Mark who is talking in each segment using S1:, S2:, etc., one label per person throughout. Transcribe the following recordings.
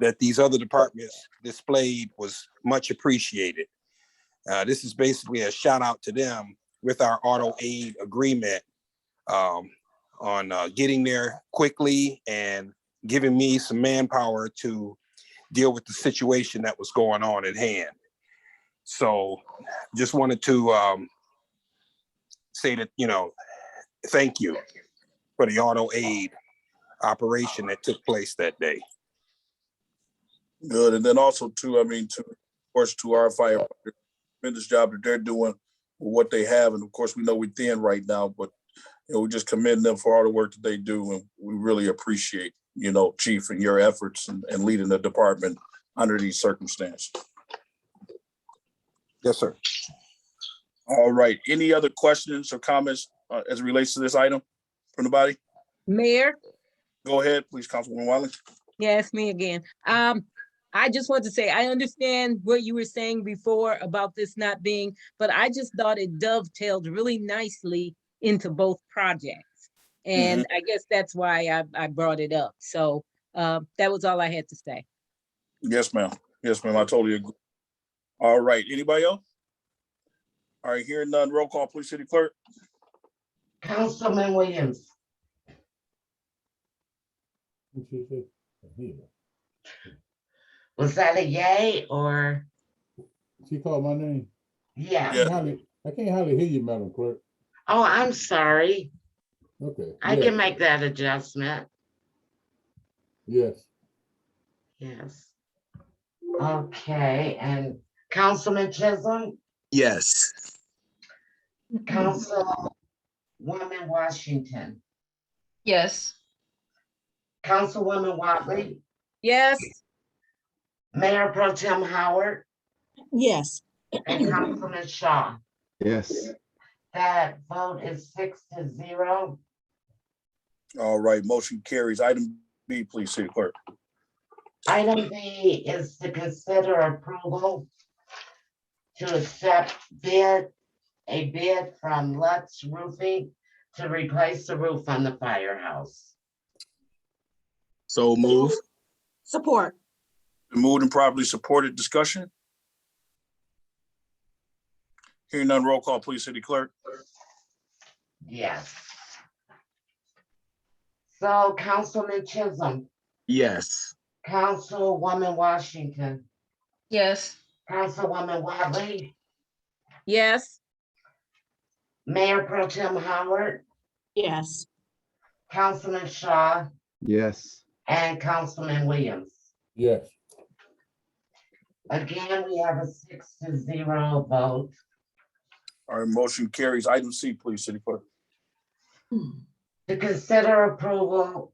S1: that these other departments displayed was much appreciated. Uh, this is basically a shout out to them with our auto aid agreement um, on uh, getting there quickly and giving me some manpower to deal with the situation that was going on at hand. So just wanted to um, say that, you know, thank you for the auto aid operation that took place that day.
S2: Good, and then also too, I mean, to, of course, to our firefighters, tremendous job that they're doing with what they have, and of course, we know we're thin right now, but you know, we just commend them for all the work that they do, and we really appreciate, you know, Chief and your efforts and, and leading the department under these circumstances.
S1: Yes, sir.
S2: All right, any other questions or comments uh, as it relates to this item from the body?
S3: Mayor,
S2: Go ahead, please, Councilwoman Wiley.
S3: yeah, it's me again. Um, I just want to say, I understand what you were saying before about this not being, but I just thought it dovetailed really nicely into both projects. And I guess that's why I, I brought it up. So, uh, that was all I had to say.
S2: Yes, ma'am. Yes, ma'am. I totally agree. All right, anybody else? All right, hearing none, roll call, please, City Clerk.
S4: Councilman Williams,
S5: She
S4: was that a yay or
S5: called my name. I
S4: yeah?
S2: Yeah.
S5: can't hardly- I can't hardly hear you, Madam Clerk.
S4: Oh, I'm sorry.
S5: Okay.
S4: I
S5: yes,
S4: can make that adjustment.
S5: Yes,
S4: Yes. Okay, and Councilman Chisholm,
S6: Yes,
S4: Councilwoman Washington,
S7: Yes.
S4: Councilwoman Watley,
S3: Yes,
S4: Mayor Pro Tem Howard,
S8: Yes.
S4: and Councilman Shaw.
S9: Yes.
S4: That vote is six to zero.
S2: All right, motion carries. Item B, please, City Clerk.
S4: Item B is to consider approval to accept bid, a bid from Lutz Roofing to replace the roof on the firehouse.
S6: so move.
S8: Support.
S2: Been Moved and properly supported. Discussion? Hearing none, roll call, please, City Clerk.
S4: Yes. So Councilman Chisholm,
S6: Yes,
S4: Councilwoman Washington,
S7: Yes.
S4: Councilwoman Watley,
S3: yes,
S4: Mayor Pro Tem Howard,
S8: Yes.
S4: Councilman Shaw,
S9: Yes.
S4: and Councilman Williams.
S5: yes,
S4: Again, we have a six to zero vote.
S2: All right, motion carries. Item C, please, City Clerk.
S4: to consider approval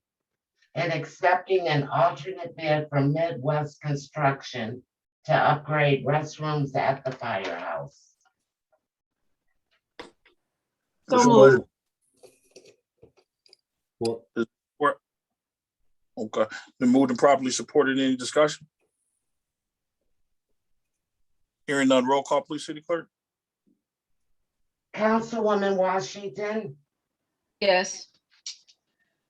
S4: and accepting an alternate bid from Midwest Construction to upgrade restrooms at the firehouse.
S8: So
S2: Support.
S8: moved.
S5: Support.
S2: Okay, then moved and properly supported. Any discussion? Hearing none, roll call, please, City Clerk.
S4: Councilwoman Washington,
S7: Yes.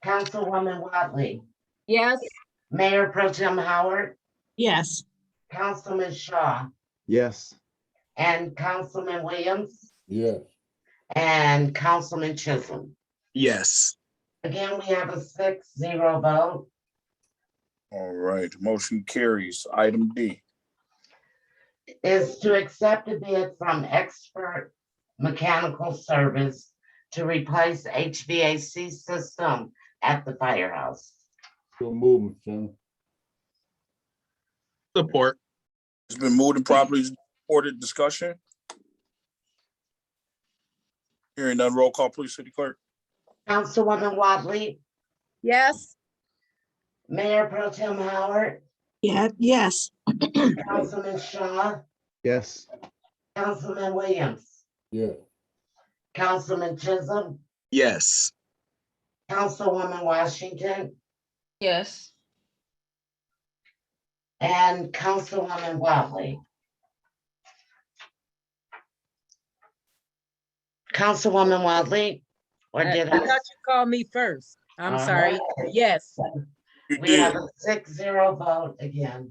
S4: Councilwoman Watley,
S3: yes,
S4: Mayor Pro Tem Howard,
S8: Yes.
S4: Councilman Shaw,
S9: Yes.
S4: and Councilman Williams,
S5: yes,
S4: and Councilman Chisholm.
S6: yes,
S4: Again, we have a six zero vote.
S2: All right, motion carries. Item D.
S4: is to accept a bid from expert mechanical service to replace HVAC system at the firehouse.
S5: so move, Mr. Chairman.
S6: support.
S2: It's been moved and properly supported. Discussion? Hearing none, roll call, please, City Clerk.
S4: Councilwoman Watley,
S3: yes,
S4: Mayor Pro Tem Howard,
S8: Yeah, yes.
S4: Councilman Shaw,
S9: Yes.
S4: Councilman Williams,
S5: yes,
S4: Councilman Chisholm,
S6: Yes,
S4: Councilwoman Washington,
S7: Yes.
S4: and Councilwoman Watley. Councilwoman Watley, or
S3: I I
S4: did
S3: thought
S4: I?
S3: you called me first. I'm
S4: Uh,
S3: sorry. Yes,
S2: You
S4: We
S2: did.
S4: have a six zero vote again.